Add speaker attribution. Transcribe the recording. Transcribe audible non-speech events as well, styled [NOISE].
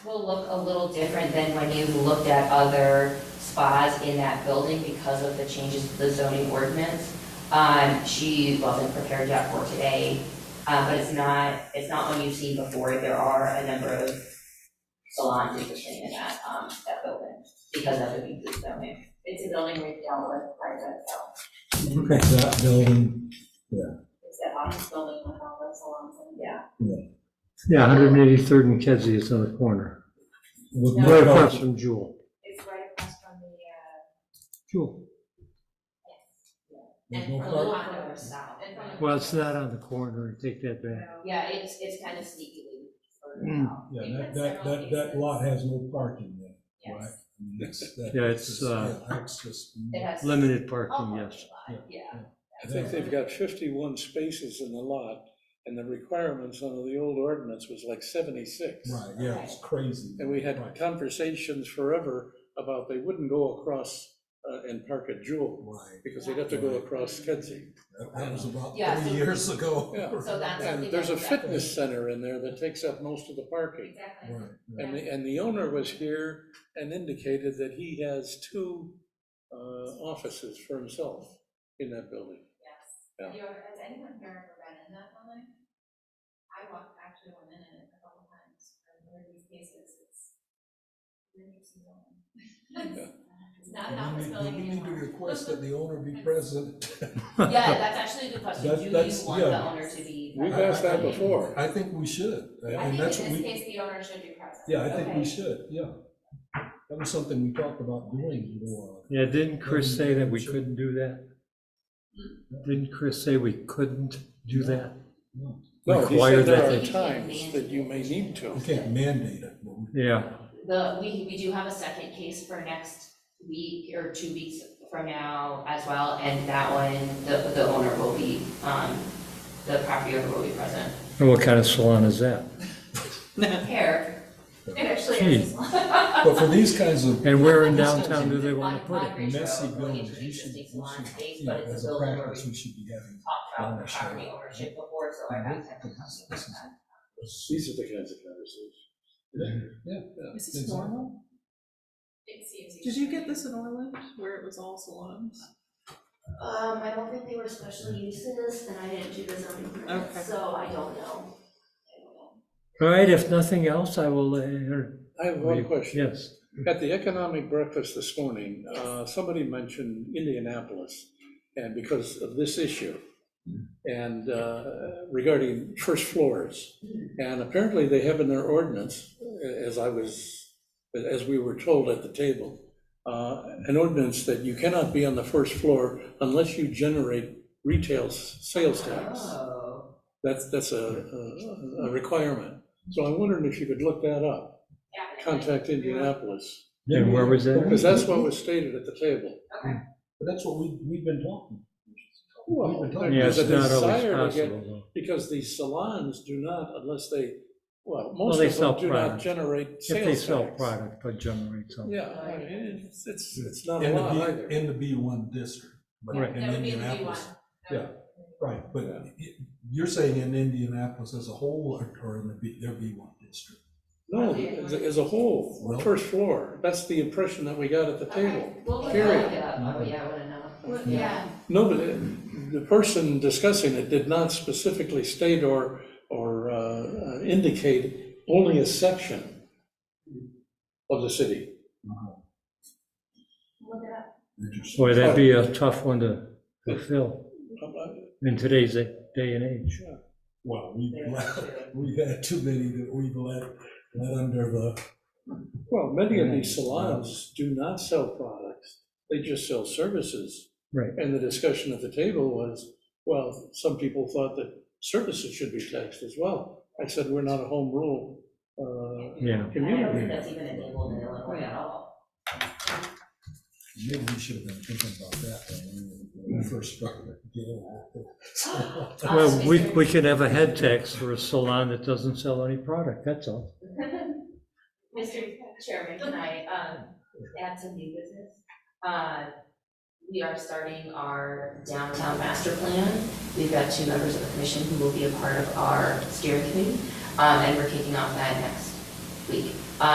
Speaker 1: will look a little different than when you've looked at other spas in that building because of the changes to the zoning ordinance. Um, she wasn't prepared yet for today, uh, but it's not, it's not one you've seen before. There are a number of salons existing in that, um, that building because of the B zoning. It's a building we've dealt with private, so
Speaker 2: Okay, that building,
Speaker 1: it's that office building with all those salons in it. Yeah.
Speaker 3: Yeah, 183rd and Kedzie is on the corner,
Speaker 2: look
Speaker 3: right
Speaker 2: look
Speaker 3: across
Speaker 2: up,
Speaker 3: from Jewel.
Speaker 1: It's right across from the, uh,
Speaker 3: Jewel.
Speaker 2: look
Speaker 1: and from the
Speaker 2: up-
Speaker 1: Lackawanna South.
Speaker 4: And from the-
Speaker 3: Well, it's not on the corner, I take that back.
Speaker 1: Yeah, it's, it's kind of sneakily further
Speaker 3: Mm.
Speaker 1: out.
Speaker 2: yeah, that, that, that, that lot has no parking there, right?
Speaker 1: Yes,
Speaker 2: I mean, that's- that-
Speaker 3: Yeah, it's, uh,
Speaker 2: yeah, That's just.
Speaker 1: it has.
Speaker 3: Limited
Speaker 1: all
Speaker 3: parking,
Speaker 1: parking
Speaker 3: yes.
Speaker 1: lot, Yeah.
Speaker 5: I think they've got fifty-one spaces in the lot, and the requirements under the old ordinance was like seventy-six.
Speaker 2: Right, yeah, it's crazy.
Speaker 5: And we had
Speaker 2: Right,
Speaker 5: conversations forever about they wouldn't go across uh, and park at Jewel,
Speaker 2: Right,
Speaker 5: because they'd have to go across Kedzie.
Speaker 2: That- that was about
Speaker 1: Yeah,
Speaker 2: three
Speaker 1: so-
Speaker 2: years ago.
Speaker 5: Yeah.
Speaker 1: So
Speaker 2: [LAUGHS]
Speaker 1: that's
Speaker 5: And
Speaker 1: something.
Speaker 5: there's a
Speaker 1: that we-
Speaker 5: fitness center in there that takes up most of the parking.
Speaker 4: Exactly.
Speaker 2: Right, right.
Speaker 5: And the, and the owner was here and indicated that he has two uh, offices for himself in that building.
Speaker 4: Yes.
Speaker 5: Yeah.
Speaker 4: Have you ever, has anyone here ever been in that building? I walked, actually went in it a couple times for one of these cases. It's an interesting [LAUGHS] building. It's not
Speaker 2: And
Speaker 4: an
Speaker 2: we
Speaker 4: office
Speaker 2: need-
Speaker 4: building
Speaker 2: We need to
Speaker 4: anymore.
Speaker 2: request that the
Speaker 1: [LAUGHS]
Speaker 2: owner be present.
Speaker 1: Yeah, that's actually the question.
Speaker 2: That-
Speaker 1: Do you
Speaker 2: that's-
Speaker 1: want the
Speaker 2: yeah.
Speaker 1: owner to be?
Speaker 5: We've asked that before.
Speaker 2: I think we should,
Speaker 4: I
Speaker 2: and
Speaker 4: think in
Speaker 2: that's
Speaker 4: this
Speaker 2: what we.
Speaker 4: case, the owner should be present.
Speaker 2: Yeah, I think
Speaker 1: Okay.
Speaker 2: we should, yeah. That was something we talked about doing, you know,
Speaker 3: Yeah, didn't Chris say that we couldn't do that? Didn't Chris say we couldn't do that?
Speaker 5: No, he
Speaker 3: Require
Speaker 5: said there
Speaker 3: that
Speaker 5: are times that you may need to.
Speaker 2: uh, we can't mandate it. but we-
Speaker 3: Yeah,
Speaker 1: The, we, we do have a second case for next week or two weeks from now as well, and that one, the, the owner will be, um, the property owner will be present.
Speaker 3: and what kind of salon is that?
Speaker 1: Here,
Speaker 4: It actually is.
Speaker 2: But for these kinds
Speaker 3: [LAUGHS]
Speaker 2: of,
Speaker 3: And where in downtown do they want
Speaker 1: on
Speaker 3: to put it?
Speaker 1: Congress
Speaker 2: messy
Speaker 1: Road, really
Speaker 2: buildings, you should,
Speaker 1: interesting
Speaker 2: you
Speaker 1: salon space,
Speaker 2: should, yeah,
Speaker 1: but it's
Speaker 2: as
Speaker 1: a
Speaker 2: a
Speaker 1: building where we
Speaker 2: practice, we should be having.
Speaker 1: talked about
Speaker 2: Ownership.
Speaker 1: property ownership before, so I got second thoughts about that.
Speaker 5: These are the kinds of conversations.
Speaker 6: Is this normal?
Speaker 4: It seems.
Speaker 6: Did you get this in Orland where it was all salons?
Speaker 1: Um, I don't think they were special uses, and I didn't do the zoning
Speaker 6: Okay.
Speaker 1: permit, so I don't know. I don't know.
Speaker 3: All right, if nothing else, I will, uh, enter-
Speaker 5: I have one question.
Speaker 3: yes.
Speaker 5: At the economic breakfast this morning, uh, somebody mentioned Indianapolis, and because of this issue, and uh, regarding first floors. And apparently, they have in their ordinance, uh, as I was, as we were told at the table, uh, an ordinance that you cannot be on the first floor unless you generate retail s- sales tax.
Speaker 1: Oh,
Speaker 5: That's, that's a- a, a requirement. So I'm wondering if you could look that up,
Speaker 4: Yeah.
Speaker 5: contact Indianapolis.
Speaker 3: And where was that?
Speaker 5: Because that's what was stated at the table.
Speaker 2: But that's what we, we've been talking.
Speaker 5: Well,
Speaker 2: We've been talking
Speaker 3: Yeah,
Speaker 2: about
Speaker 3: it's
Speaker 5: there's a
Speaker 3: not always
Speaker 5: desire to get-
Speaker 3: possible. though.
Speaker 5: Because these salons do not, unless they, well,
Speaker 3: Well,
Speaker 5: most
Speaker 3: they
Speaker 5: of
Speaker 3: sell
Speaker 5: them do not
Speaker 3: products.
Speaker 5: generate
Speaker 3: If they
Speaker 5: sales
Speaker 3: sell
Speaker 5: tax.
Speaker 3: product, but generate something.
Speaker 5: Yeah, I mean, it's, it's, it's not a
Speaker 2: In the
Speaker 5: lot
Speaker 2: B-
Speaker 5: either.
Speaker 2: In the B one district. but
Speaker 3: Right.
Speaker 2: in
Speaker 4: That would be the B one.
Speaker 2: Indianapolis- Right, but
Speaker 5: Yeah.
Speaker 2: y- you're saying in Indianapolis as a whole, or- or in the B, their B one district?
Speaker 5: No, as, as a whole,
Speaker 2: Well-
Speaker 5: first floor, that's the impression that we got at the table.
Speaker 4: Okay, we'll look
Speaker 5: Period.
Speaker 4: at it.
Speaker 1: yeah, oh, yeah, I wanna know.
Speaker 4: Well, Yeah.
Speaker 5: No, but it- the person discussing it did not specifically state or, or uh, indicate only a section of the city. Uh-huh.
Speaker 4: Look it up.
Speaker 2: Interesting.
Speaker 3: Boy, that'd be a tough one to fulfill in today's day and age.
Speaker 2: [LAUGHS] Well, we've, let- we've had too many that we've let, let under the,
Speaker 5: Well, many of these salons do not sell products, they just sell services.
Speaker 3: Right.
Speaker 5: And the discussion at the table was, well, some people thought that services should be taxed as well. I said, we're not a home rule uh,
Speaker 3: Yeah.
Speaker 1: I don't think
Speaker 5: community.
Speaker 1: that's even enabled in Illinois at all.
Speaker 2: maybe we should have been thinking about that when we first started. Yeah.
Speaker 3: [LAUGHS] Well,
Speaker 1: Us,
Speaker 3: we,
Speaker 1: Mr.
Speaker 3: we could have a head tax for a salon that doesn't sell any product, that's all.
Speaker 1: Mr. Chairman, can I, um, add some new business? Uh, we are starting our downtown master plan. We've got two members of the commission who will be a part of our steering committee, um, and we're kicking off that next week.